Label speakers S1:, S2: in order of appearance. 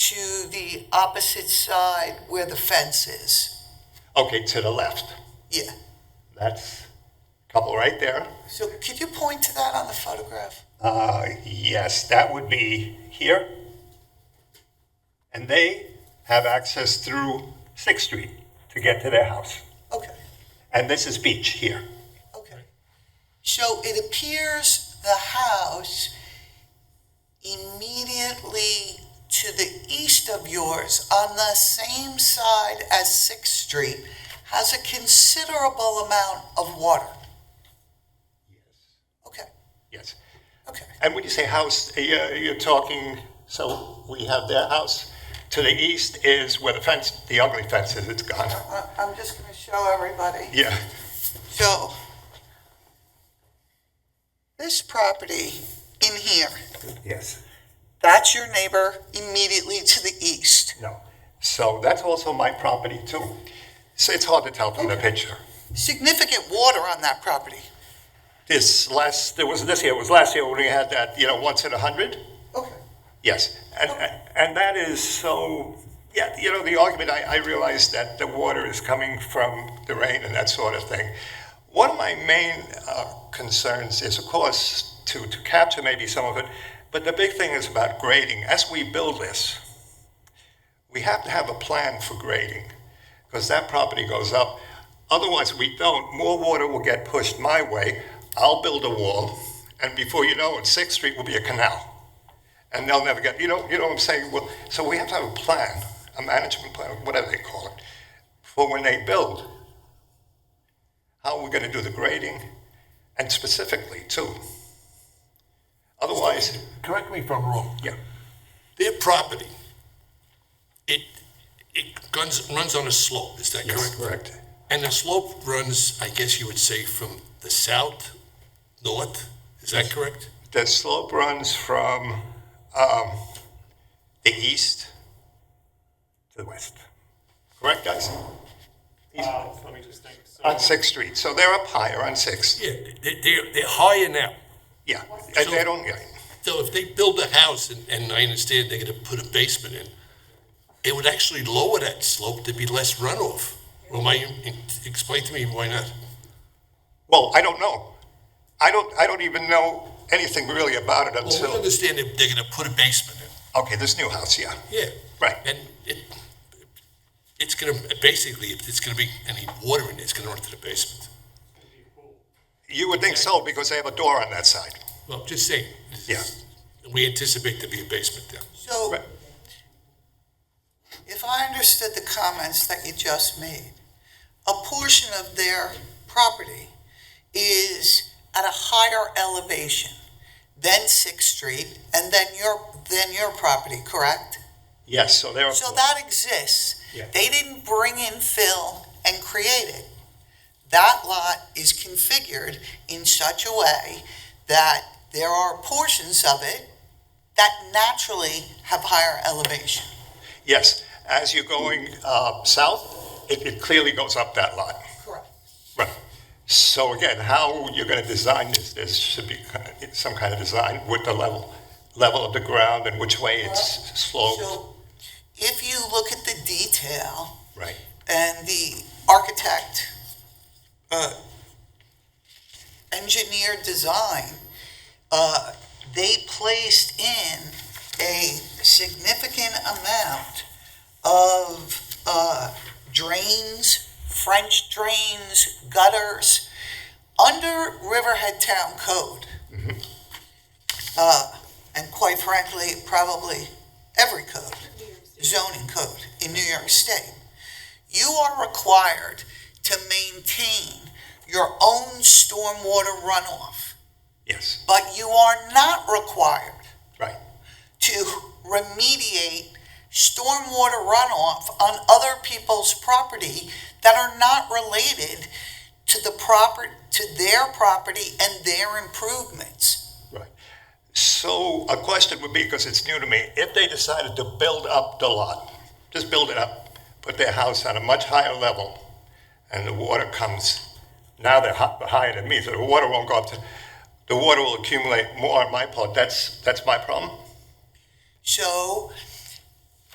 S1: to the opposite side where the fence is.
S2: Okay, to the left.
S1: Yeah.
S2: That's a couple right there.
S1: So could you point to that on the photograph?
S2: Uh, yes, that would be here. And they have access through Sixth Street to get to their house.
S1: Okay,
S2: And this is beach here.
S1: okay. So it appears the house immediately to the east of yours, on the same side as Sixth Street, has a considerable amount of water. Okay,
S2: Yes.
S1: okay.
S2: And when you say house, uh, you're, you're talking, so we have their house. To the east is where the fence, the ugly fence is, it's gone.
S1: I- I'm just gonna show everybody.
S2: Yeah.
S1: So, this property in here,
S2: Yes.
S1: that's your neighbor immediately to the east.
S2: No. So that's also my property too. So it's hard to tell from the picture.
S1: Significant water on that property.
S2: This last, there was this year, it was last year when we had that, you know, once in a hundred?
S1: Okay.
S2: Yes. And, and that is so, yeah, you know, the argument, I, I realize that the water is coming from the rain and that sort of thing. One of my main uh, concerns is, of course, to, to capture maybe some of it, but the big thing is about grading. As we build this, we have to have a plan for grading because that property goes up. Otherwise, we don't. More water will get pushed my way. I'll build a wall, and before you know it, Sixth Street will be a canal, and they'll never get. You know, you know what I'm saying? Well, so we have to have a plan, a management plan, whatever they call it, for when they build. How we're going to do the grading, and specifically too. Otherwise,
S3: correct me if I'm wrong,
S2: yeah.
S3: their property, it, it guns, runs on a slope, is that correct?
S2: correct.
S3: And the slope runs, I guess you would say, from the south, north, is that correct?
S2: The slope runs from um, the east to the west. Correct, guys?
S4: Oh, Let me just think. So,
S2: On Sixth Street. So they're up higher on Sixth.
S3: Yeah, they, they're, they're higher now.
S2: Yeah. And they don't. Yeah.
S3: So if they build a house, and, and I understand they're gonna put a basement in, it would actually lower that slope, there'd be less runoff. Well, my, explain to me why not?
S2: Well, I don't know. I don't. I don't even know anything really about it
S3: Well, we
S2: until.
S3: understand that they're gonna put a basement in.
S2: Okay, this new house. Yeah.
S3: Yeah.
S2: Right.
S3: And it, it's gonna, basically, if it's gonna be any water in it, it's gonna run to the basement.
S2: You would think so because they have a door on that side.
S3: Well, just saying. this is- We anticipate there be a basement there.
S1: So,
S2: Right.
S1: if I understood the comments that you just made, a portion of their property is at a higher elevation than Sixth Street and then your, than your property, correct?
S2: Yes. So they're.
S1: So that exists.
S2: Yeah.
S1: They didn't bring in fill and create it. That lot is configured in such a way that there are portions of it that naturally have higher elevation.
S2: Yes. As you're going uh, south, it, it clearly goes up that lot.
S1: Correct.
S2: Right. So again, how you're going to design this, this should be kind of- some kind of design with the level, level of the ground and which way it's sloped.
S1: So if you look at the detail
S2: Right.
S1: and the architect, uh, engineer design, uh, they placed in a significant amount of uh, drains, French drains, gutters, under Riverhead Town Code. Uh, And quite frankly, probably every code, zoning code in New York State you are required to maintain your own stormwater runoff,
S2: Yes,
S1: but you are not required
S2: right.
S1: to remediate stormwater runoff on other people's property that are not related to the proper, to their property and their improvements.
S2: So a question would be, because it's new to me, if they decided to build up the lot, just build it up, put their house on a much higher level, and the water comes, now they're hi- higher than me, so the water won't go up to, the water will accumulate more on my part. That's, that's my problem?
S1: So